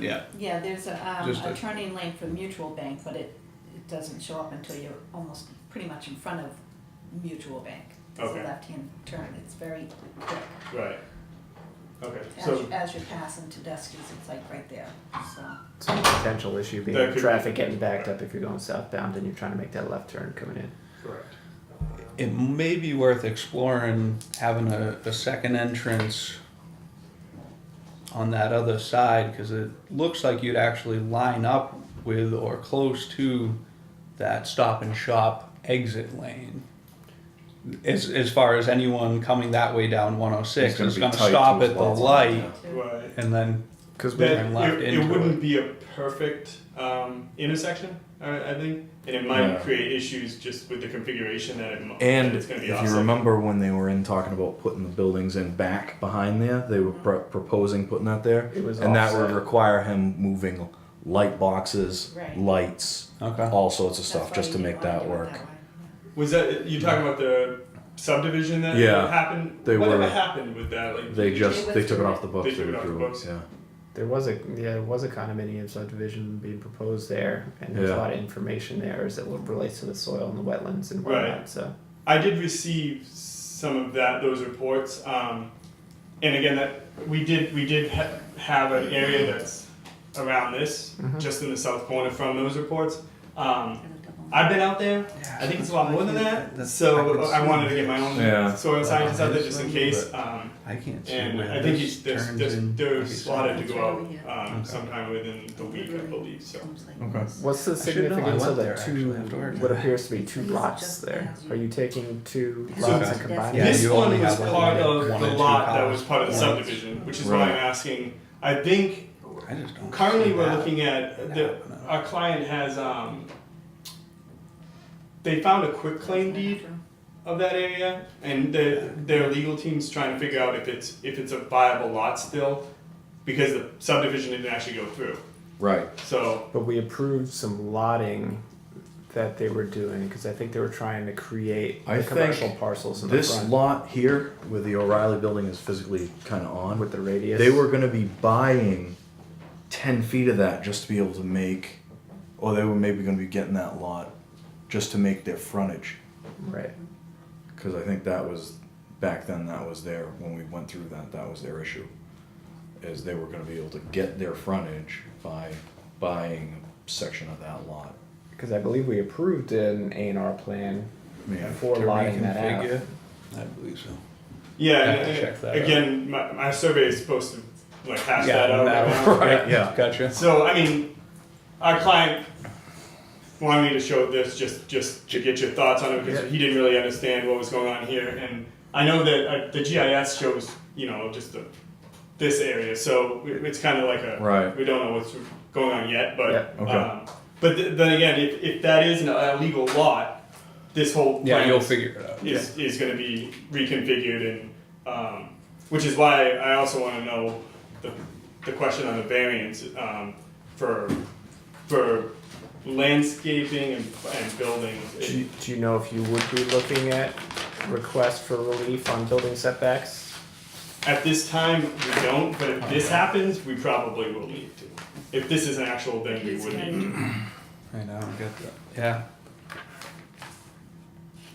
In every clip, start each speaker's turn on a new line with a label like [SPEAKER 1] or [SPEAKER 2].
[SPEAKER 1] yeah,
[SPEAKER 2] Yeah, there's a, um,
[SPEAKER 1] Just
[SPEAKER 2] a
[SPEAKER 1] a-
[SPEAKER 2] turning lane for Mutual Bank, but it, it doesn't show up until you're almost pretty much in front of Mutual Bank. There's a
[SPEAKER 3] Okay.
[SPEAKER 2] left-hand turn, it's very quick.
[SPEAKER 3] right. Okay,
[SPEAKER 2] As,
[SPEAKER 3] so,
[SPEAKER 2] you- as you're passing Tedeschi's, it's like right there, so.
[SPEAKER 4] It's a potential issue
[SPEAKER 3] That
[SPEAKER 4] being
[SPEAKER 3] could be-
[SPEAKER 4] traffic getting backed up if you're going southbound and you're trying to make that left turn coming in.
[SPEAKER 3] correct.
[SPEAKER 1] it may be worth exploring having a, a second entrance on that other side, because it looks like you'd actually line up with or close to that stop and shop exit lane. As, as far as anyone coming that way down one oh six,
[SPEAKER 5] gonna
[SPEAKER 1] is
[SPEAKER 5] be
[SPEAKER 1] gonna
[SPEAKER 5] tight
[SPEAKER 1] stop
[SPEAKER 5] to
[SPEAKER 1] at
[SPEAKER 5] his
[SPEAKER 1] the
[SPEAKER 5] lights on.
[SPEAKER 1] light
[SPEAKER 3] Right.
[SPEAKER 1] and then,
[SPEAKER 4] Because we,
[SPEAKER 1] turn
[SPEAKER 3] That,
[SPEAKER 1] left
[SPEAKER 3] it, it
[SPEAKER 1] into
[SPEAKER 3] wouldn't be a perfect um, intersection, I, I think, and it might
[SPEAKER 5] Yeah.
[SPEAKER 3] create issues just with the configuration that it, mo- that
[SPEAKER 5] And
[SPEAKER 3] it's going to be
[SPEAKER 5] if
[SPEAKER 3] offset.
[SPEAKER 5] you remember when they were in talking about putting the buildings in back behind there, they were pro- proposing putting that there,
[SPEAKER 4] It was
[SPEAKER 5] and that would
[SPEAKER 4] offset.
[SPEAKER 5] require him moving light boxes,
[SPEAKER 2] Right.
[SPEAKER 5] lights,
[SPEAKER 1] okay.
[SPEAKER 5] all sorts of
[SPEAKER 2] That's
[SPEAKER 5] stuff
[SPEAKER 2] why
[SPEAKER 5] just to
[SPEAKER 2] you
[SPEAKER 5] make
[SPEAKER 2] wanna
[SPEAKER 5] that
[SPEAKER 2] do it
[SPEAKER 5] work.
[SPEAKER 2] way,
[SPEAKER 3] was that you talking about the subdivision that
[SPEAKER 5] Yeah.
[SPEAKER 3] happened?
[SPEAKER 5] They
[SPEAKER 3] Whatever
[SPEAKER 5] were-
[SPEAKER 3] happened with that? Like
[SPEAKER 5] They just
[SPEAKER 2] was
[SPEAKER 5] they took it
[SPEAKER 2] doing
[SPEAKER 5] off the books.
[SPEAKER 3] They took it off the
[SPEAKER 5] withdrew
[SPEAKER 3] books.
[SPEAKER 5] Yeah.
[SPEAKER 4] there was a yeah, there was a condominium subdivision being proposed there, and there's a
[SPEAKER 5] Yeah.
[SPEAKER 4] lot of information there as it relates to the soil and the wetlands and
[SPEAKER 3] Right.
[SPEAKER 4] whatnot. So
[SPEAKER 3] I did receive some of that those reports, um, and again, that we did we did ha- have an area that's around this,
[SPEAKER 4] Mhm.
[SPEAKER 3] just in the south corner from those reports. Um,
[SPEAKER 2] yeah. And a double-
[SPEAKER 3] I've been out there. I think it's a lot more than that. So I wanted to get my own
[SPEAKER 5] Yeah.
[SPEAKER 3] soil scientist out there just in
[SPEAKER 1] Yeah.
[SPEAKER 3] case. Um,
[SPEAKER 1] I can't see
[SPEAKER 3] and
[SPEAKER 1] where
[SPEAKER 3] I think
[SPEAKER 1] this
[SPEAKER 3] he's, there's,
[SPEAKER 1] turns
[SPEAKER 3] there's,
[SPEAKER 1] in.
[SPEAKER 3] they're
[SPEAKER 1] Okay, so-
[SPEAKER 3] slotted to go
[SPEAKER 2] Okay.
[SPEAKER 3] out um, sometime within the week, I believe. So
[SPEAKER 2] Comes like
[SPEAKER 5] Okay.
[SPEAKER 2] this.
[SPEAKER 4] what's the
[SPEAKER 1] I should know, I
[SPEAKER 4] significance
[SPEAKER 1] went
[SPEAKER 4] of the
[SPEAKER 1] there
[SPEAKER 4] two
[SPEAKER 1] actually afterwards.
[SPEAKER 4] what appears to be two
[SPEAKER 2] It's
[SPEAKER 4] lots
[SPEAKER 2] just
[SPEAKER 4] there?
[SPEAKER 2] as you-
[SPEAKER 4] Are you taking two
[SPEAKER 2] It's
[SPEAKER 4] lots
[SPEAKER 1] just
[SPEAKER 4] and combining?
[SPEAKER 1] Yeah, as
[SPEAKER 3] this
[SPEAKER 1] you
[SPEAKER 3] one
[SPEAKER 1] only
[SPEAKER 3] was
[SPEAKER 1] have, like,
[SPEAKER 3] part
[SPEAKER 1] one
[SPEAKER 3] of
[SPEAKER 1] or
[SPEAKER 3] the
[SPEAKER 1] two
[SPEAKER 3] lot that was
[SPEAKER 1] columns.
[SPEAKER 3] part of the
[SPEAKER 1] Yeah.
[SPEAKER 3] subdivision, which is why
[SPEAKER 5] Right.
[SPEAKER 3] I'm asking. I think
[SPEAKER 1] I just don't
[SPEAKER 3] currently
[SPEAKER 1] see
[SPEAKER 3] we're
[SPEAKER 1] that.
[SPEAKER 3] looking at the,
[SPEAKER 1] happening.
[SPEAKER 3] our client has um, they found a quick claim deed of that area, and their their legal team's trying to figure out if it's if it's a viable lot still, because the subdivision didn't actually go through.
[SPEAKER 5] Right.
[SPEAKER 3] So
[SPEAKER 4] But we approved some lotting that they were doing because I think they were trying to create
[SPEAKER 5] I
[SPEAKER 4] the
[SPEAKER 5] think
[SPEAKER 4] commercial parcels in the
[SPEAKER 5] This
[SPEAKER 4] front
[SPEAKER 5] lot here, where the O'Reilly building is physically kind of on,
[SPEAKER 4] with the radius.
[SPEAKER 5] they were going to be buying 10 feet of that just to be able to make or they were maybe going to be getting that lot just to make their frontage
[SPEAKER 4] right.
[SPEAKER 5] because i think that was back then that was their when we went through that that was their issue is they were going to be able to get their frontage by buying a section of that lot
[SPEAKER 4] Because I believe we approved an A and R plan
[SPEAKER 5] yeah
[SPEAKER 4] for
[SPEAKER 1] To
[SPEAKER 4] lining that
[SPEAKER 1] reconfigure?
[SPEAKER 4] out.
[SPEAKER 1] I believe so.
[SPEAKER 3] yeah,
[SPEAKER 1] Have to
[SPEAKER 3] and-
[SPEAKER 1] check that
[SPEAKER 3] again, my, my survey is supposed to like hash that out.
[SPEAKER 1] that
[SPEAKER 3] right
[SPEAKER 1] one.
[SPEAKER 3] now.
[SPEAKER 5] Right, yeah.
[SPEAKER 1] Gotcha.
[SPEAKER 3] So I mean, our client wanted me to show this just just to get your thoughts on it because
[SPEAKER 4] Yeah.
[SPEAKER 3] he didn't really understand what was going on here, and I know that uh, the GIS shows you know just the this area, so it- it's kind of like a
[SPEAKER 5] Right.
[SPEAKER 3] we don't know what's going on yet, but
[SPEAKER 4] Yeah,
[SPEAKER 5] okay.
[SPEAKER 3] um, but th- then again, if, if that is an illegal lot, this whole
[SPEAKER 1] Yeah,
[SPEAKER 3] plan
[SPEAKER 1] you'll
[SPEAKER 3] is-
[SPEAKER 1] figure it out.
[SPEAKER 3] is, is going to be reconfigured and um, which is why I also want to know the, the question on the variance um, for for landscaping and, and buildings.
[SPEAKER 4] Do
[SPEAKER 3] It-
[SPEAKER 4] you, do you know if you would be looking at requests for relief on building setbacks?
[SPEAKER 3] At this time, we don't, but if this happens, we probably will need to. If this is an actual thing, we
[SPEAKER 2] It's
[SPEAKER 3] would
[SPEAKER 2] gotta
[SPEAKER 3] need to.
[SPEAKER 1] I know, I get that. Yeah.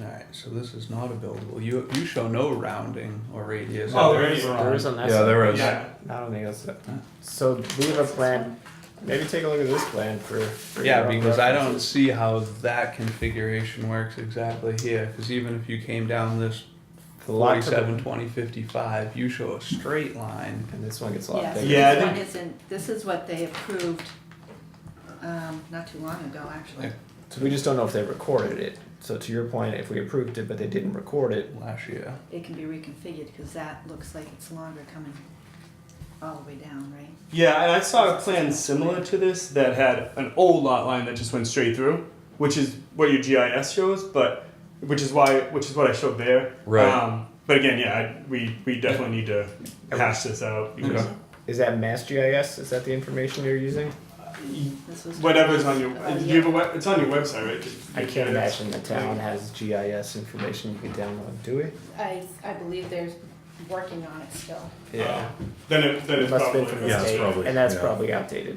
[SPEAKER 1] Alright, so this is not a buildable. You, you show no rounding or radius.
[SPEAKER 3] Oh, there
[SPEAKER 1] Right.
[SPEAKER 3] is.
[SPEAKER 4] There is on that.
[SPEAKER 5] yeah there is
[SPEAKER 3] Yeah.
[SPEAKER 4] I don't think that's it. So we have a plan. Maybe take a look at this plan for. for your
[SPEAKER 1] Yeah,
[SPEAKER 4] own
[SPEAKER 1] because I don't
[SPEAKER 4] reference.
[SPEAKER 1] see how that configuration works exactly here, cause even if you came down this
[SPEAKER 4] The lot to the-
[SPEAKER 1] forty-seven, twenty, fifty-five, you show a straight line.
[SPEAKER 4] And this one gets a lot
[SPEAKER 2] Yeah, so
[SPEAKER 4] bigger.
[SPEAKER 3] Yeah, I
[SPEAKER 2] this
[SPEAKER 3] think-
[SPEAKER 2] one isn't, this is what they approved, um, not too long ago, actually.
[SPEAKER 1] Yeah.
[SPEAKER 4] So we just don't know if they recorded it. So to your point, if we approved it but they didn't record it,
[SPEAKER 1] Last year,
[SPEAKER 2] It can be reconfigured, cause that looks like it's longer coming all the way down, right?
[SPEAKER 3] Yeah, and I saw a plan similar to this that had an old lot line that just went straight through, which is what your GIS shows, but which is why which is what I showed there.
[SPEAKER 5] Right.
[SPEAKER 3] Um, but again, yeah, I, we we definitely need to hash this out because
[SPEAKER 1] Okay.
[SPEAKER 4] is that Mass GIS? Is that the information you're using?
[SPEAKER 2] This was.
[SPEAKER 3] whatever's on your
[SPEAKER 2] Oh,
[SPEAKER 3] you have a
[SPEAKER 2] yeah.
[SPEAKER 3] web, it's on your website, right? Just-
[SPEAKER 4] I can't
[SPEAKER 3] yeah,
[SPEAKER 4] imagine the town has GIS information you can download, do we?
[SPEAKER 2] I, I believe they're working on it still.
[SPEAKER 3] Yeah. Then it then
[SPEAKER 4] It
[SPEAKER 3] it's
[SPEAKER 4] must have
[SPEAKER 3] probably
[SPEAKER 4] been from the
[SPEAKER 5] Yeah, it's
[SPEAKER 4] state,
[SPEAKER 5] probably-
[SPEAKER 4] and that's
[SPEAKER 5] yeah.
[SPEAKER 4] probably outdated.